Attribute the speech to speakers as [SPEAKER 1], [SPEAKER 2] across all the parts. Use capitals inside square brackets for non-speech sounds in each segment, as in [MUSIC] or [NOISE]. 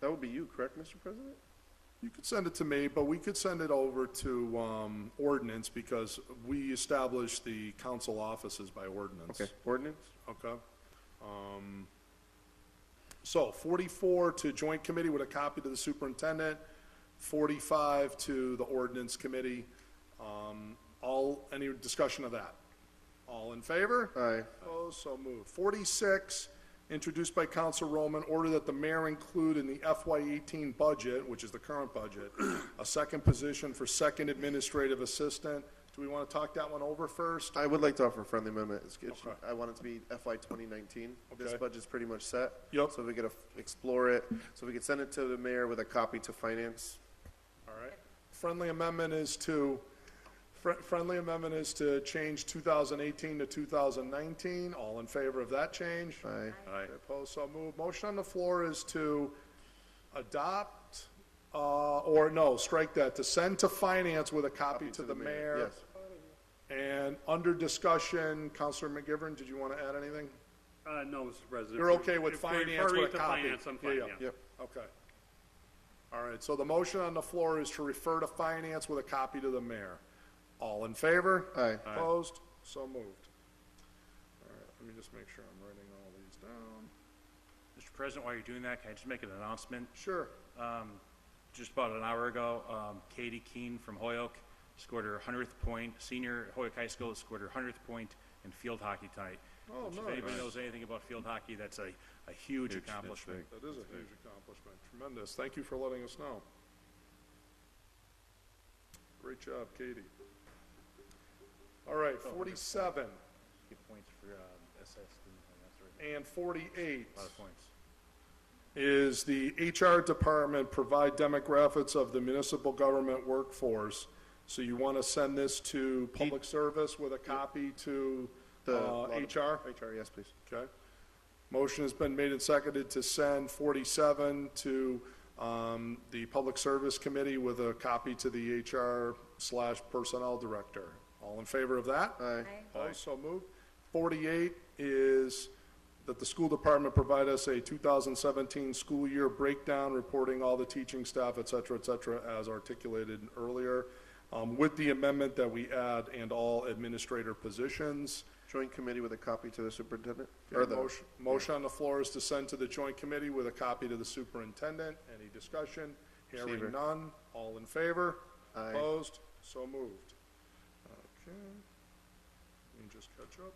[SPEAKER 1] That would be you, correct, Mr. President?
[SPEAKER 2] You could send it to me, but we could send it over to, um, ordinance because we establish the council offices by ordinance.
[SPEAKER 1] Okay, ordinance?
[SPEAKER 2] Okay. Um, So 44 to joint committee with a copy to the superintendent, 45 to the ordinance committee. Um, All, any discussion of that? All in favor?
[SPEAKER 1] Aye.
[SPEAKER 2] Opposed, so moved. 46, introduced by Council Roman, order that the mayor include in the FY18 budget, which is the current budget, a second position for second administrative assistant. Do we want to talk that one over first?
[SPEAKER 1] I would like to offer a friendly amendment. It's, it's,
[SPEAKER 2] Okay.
[SPEAKER 1] I want it to be FY twenty nineteen. This
[SPEAKER 2] Okay.
[SPEAKER 1] budget's pretty much set.
[SPEAKER 2] Yep.
[SPEAKER 1] So we could af- explore it, so we could send it to the mayor with a copy to finance.
[SPEAKER 2] All right. Friendly amendment is to, fr- friendly amendment is to change 2018 to 2019. All in favor of that change?
[SPEAKER 1] Aye.
[SPEAKER 2] Aye. Opposed, so moved. Motion on the floor is to adopt, uh, or no, strike that, to send to finance with a copy to the mayor.
[SPEAKER 1] Yes.
[SPEAKER 2] And under discussion, Counselor McGivern, did you want to add anything?
[SPEAKER 3] Uh, no, Mr. President.
[SPEAKER 2] You're okay with
[SPEAKER 3] If we're
[SPEAKER 2] finance with a
[SPEAKER 3] referring
[SPEAKER 2] copy?
[SPEAKER 3] to finance, I'm fine, yeah.
[SPEAKER 1] Yep.
[SPEAKER 2] Okay. All right, so the motion on the floor is to refer to finance with a copy to the mayor. All in favor?
[SPEAKER 1] Aye. Aye.
[SPEAKER 2] Opposed? So moved. All right, let me just make sure I'm writing all these down.
[SPEAKER 4] Mr. President, while you're doing that, can I just make an announcement? Um,
[SPEAKER 2] Sure.
[SPEAKER 4] Just about an hour ago, um, Katie Keen from Hoyoke scored her 100th point, senior at Hoyoke High School scored her 100th point in field hockey tonight.
[SPEAKER 2] Oh,
[SPEAKER 4] Which, If
[SPEAKER 2] nice.
[SPEAKER 4] anybody knows anything about field hockey, that's a, a huge accomplishment.
[SPEAKER 2] That is a huge accomplishment, tremendous. Thank you for letting us know. Great job, Katie. All right, 47
[SPEAKER 4] Get points for, um, SSD, that's right,
[SPEAKER 2] and 48.
[SPEAKER 4] a lot of points.
[SPEAKER 2] is the HR department provide demographics of the municipal government workforce. So you want to send this to public service with a copy to
[SPEAKER 1] The
[SPEAKER 2] uh,
[SPEAKER 1] law dep-
[SPEAKER 2] HR?
[SPEAKER 1] HR, yes, please.
[SPEAKER 2] Okay. Motion has been made and seconded to send 47 to um, the Public Service Committee with a copy to the HR slash Personnel Director. All in favor of that?
[SPEAKER 1] Aye.
[SPEAKER 2] Opposed, so moved. 48 is that the school department provide us a 2017 school year breakdown, reporting all the teaching staff, et cetera, et cetera, as articulated earlier, um, with the amendment that we add and all administrator positions.
[SPEAKER 1] Joint committee with a copy to the superintendent, or the,
[SPEAKER 2] Motion motion on the floor is to send to the joint committee with a copy to the superintendent. Any discussion?
[SPEAKER 1] Receiver.
[SPEAKER 2] Hearing none. All in favor?
[SPEAKER 1] Aye.
[SPEAKER 2] Opposed? So moved. Okay. Let me just catch up.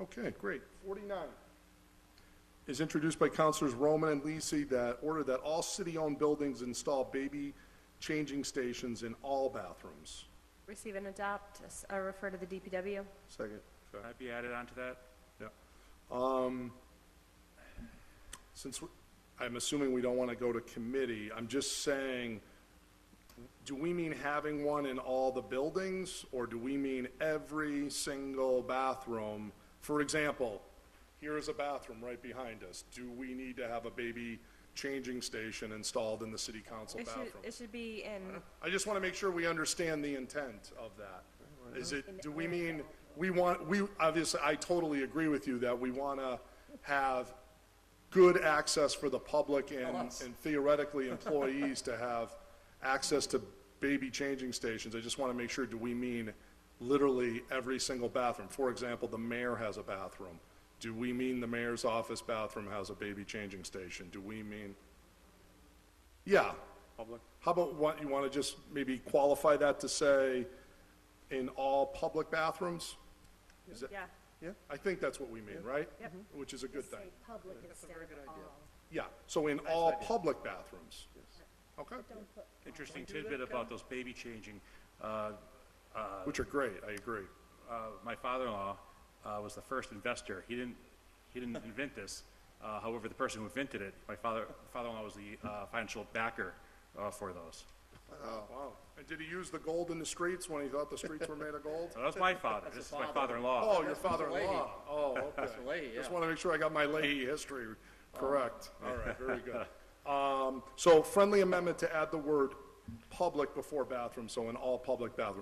[SPEAKER 2] Okay, great. Forty-nine is introduced by Councilors Roman and Lisi that order that all city-owned buildings install baby changing stations in all bathrooms.
[SPEAKER 5] Receive and adopt, s- uh, refer to the DPW.
[SPEAKER 1] second.
[SPEAKER 4] Can I be added onto that?
[SPEAKER 2] Yeah. Um, since, we- I'm assuming we don't want to go to committee, I'm just saying, do we mean having one in all the buildings, or do we mean every single bathroom? For example, here is a bathroom right behind us. Do we need to have a baby changing station installed in the city council
[SPEAKER 5] It
[SPEAKER 2] bathroom?
[SPEAKER 5] should, it should be in,
[SPEAKER 2] I just want to make sure we understand the intent of that. Is it, do we mean, we want, we, obviously, I totally agree with you that we want to have good access for the public and and theoretically employees to have access to baby changing stations. I just want to make sure, do we mean literally every single bathroom? For example, the mayor has a bathroom. Do we mean the mayor's office bathroom has a baby changing station? Do we mean? Yeah. Public. How about what, you want to just maybe qualify that to say in all public bathrooms? Is that,
[SPEAKER 5] yeah.
[SPEAKER 2] I think that's what we mean, right? Mm-hmm.
[SPEAKER 5] Yep.
[SPEAKER 2] Which is a good thing.
[SPEAKER 5] public instead of all.
[SPEAKER 2] Yeah, so in all public bathrooms? Okay,
[SPEAKER 4] Interesting tidbit about those baby changing. Uh,
[SPEAKER 2] which are great, I agree.
[SPEAKER 4] uh, my father-in-law uh, was the first investor. He didn't, he didn't invent this. Uh, however, the person who invented it, my father, father-in-law was the uh, financial backer uh, for those.
[SPEAKER 2] Wow. And did he use the gold in the streets when he thought the streets were made of gold?
[SPEAKER 4] So that was my father. this is my father-in-law.
[SPEAKER 2] Oh, your father-in-law. Oh, okay. Just want to make sure I got my Leahy history correct. Oh, All right, very good. [LAUGHS] Um, So friendly amendment to add the word public before bathroom, so in all public bathrooms.